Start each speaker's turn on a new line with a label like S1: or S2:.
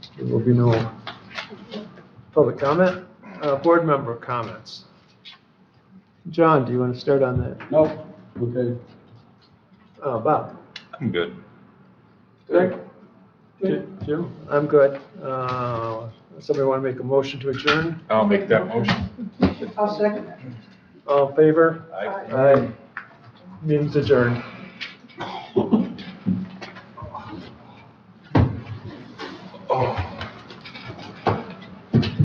S1: There will be no public comment. Uh, Board member comments. John, do you want to start on that?
S2: No, okay.
S1: Uh, Bob?
S3: I'm good.
S1: Greg? Jim? I'm good. Uh, Somebody want to make a motion to adjourn?
S3: I'll make that motion.
S4: I'll second that.
S1: All in favor?
S3: Aye.
S1: Aye. Meeting's adjourned.